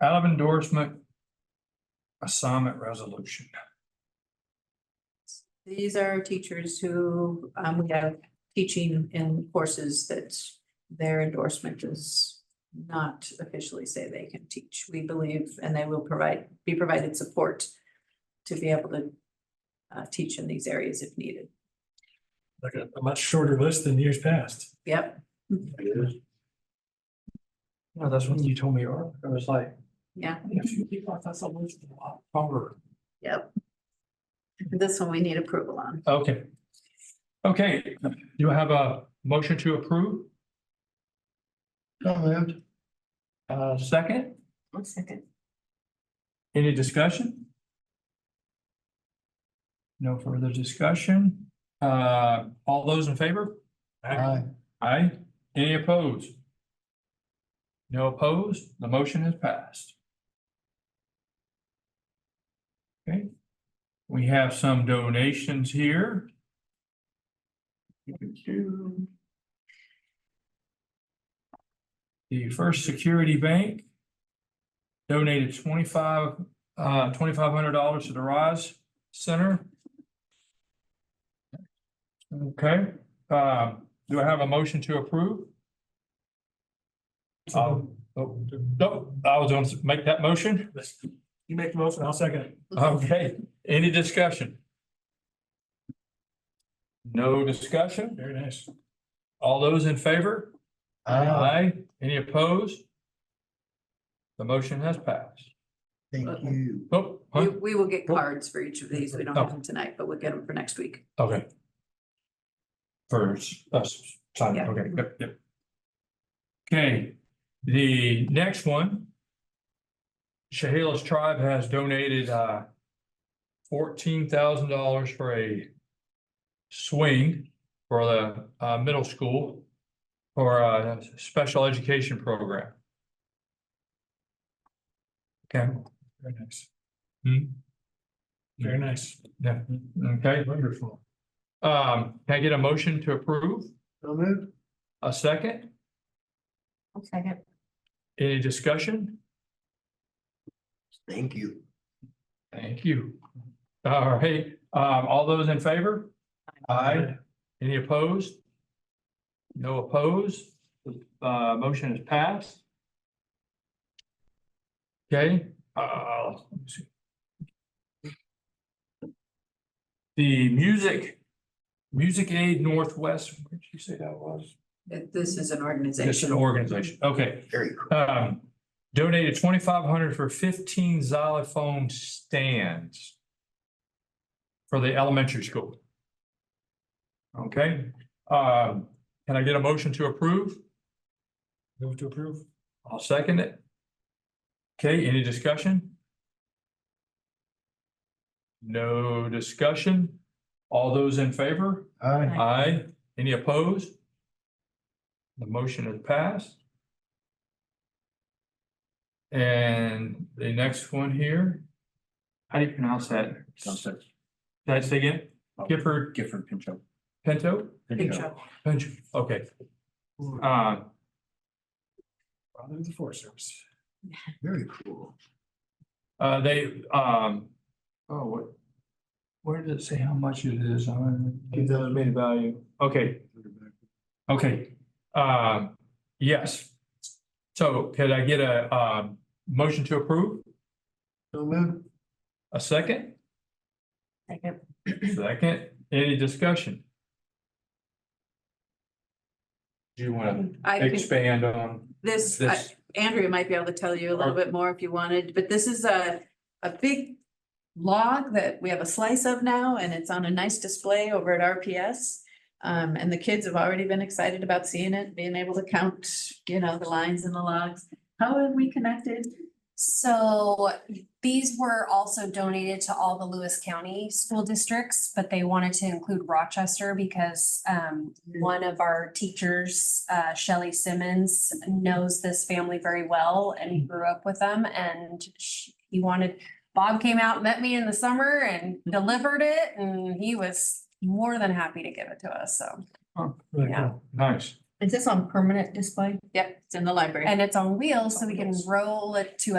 out of endorsement. Assignment resolution. These are teachers who, um, we have teaching in courses that their endorsement does not officially say they can teach, we believe, and they will provide, be provided support to be able to uh, teach in these areas if needed. like a, a much shorter list than years past. Yep, No, that's when you told me, earlier. I was like, yeah, if you leave off, that's a list of a lot longer. yep. This one we need approval on. Okay. Okay, you have a motion to approve? moved. Uh, second, One second. any discussion? No further discussion. Uh, all those in favor? Aye. Aye. Any opposed? No opposed? The motion has passed. Okay. We have some donations here. The First Security Bank donated twenty-five, uh, twenty-five hundred dollars to the Rise Center. Okay, uh, do I have a motion to approve? Um, oh, no, I was going to make that motion. You make the motion, I'll second it. Okay, any discussion? No discussion? Very nice. All those in favor? Aye. Any opposed? The motion has passed. Thank Okay. you. Oh, We, huh? we will get cards for each of these, we don't have them tonight, but we'll get them for next week. okay. First, us, sign, Yeah. okay, yep, yep. Okay, the next one. Chehalis Tribe has donated, uh, fourteen thousand dollars for a swing for the, uh, middle school for a special education program. Okay, Very nice. Hmm. Very nice. yeah, okay. Wonderful. Um, can I get a motion to approve? So moved. A second? Second. Any discussion? Thank you. Thank you. All right, um, all those in favor? Aye. Any opposed? No opposed? Uh, motion is passed. Okay, uh, let me see. The music, Music Aid Northwest, where did you say that was? This is an It's organization. an organization, okay. Very cool. um, donated twenty-five hundred for fifteen xylophone stands for the elementary school. Okay, um, can I get a motion to approve? Move to approve. I'll second it. Okay, any discussion? No discussion? All those in favor? Aye. Aye. Any opposed? The motion is passed. And the next one here. How do you pronounce that? Did I say again? Oh, Gifford? Gifford Pinto. Good Pinto? job. Pinto, okay. Uh, Father of the Forest Service. Very cool. uh, they, um, oh, what? Where does it say how much it is? Two thousand made value. Okay, Okay, um, yes. So could I get a, um, motion to approve? So moved. A second? Second. Second, any discussion? Do you want I to can- expand on This, I- this? Andrea might be able to tell you a little bit more if you wanted, but this is a, a big log that we have a slice of now, and it's on a nice display over at RPS. Um, and the kids have already been excited about seeing it, being able to count, you know, the lines and the logs. How are we connected? So these were also donated to all the Lewis County school districts, but they wanted to include Rochester because um one of our teachers, uh Shelley Simmons, knows this family very well and he grew up with them and sh- he wanted, Bob came out, met me in the summer and delivered it and he was more than happy to give it to us, so. Really Yeah. cool. Nice. Is this on permanent display? Yep, it's in the library. And it's on wheels, so we can roll it to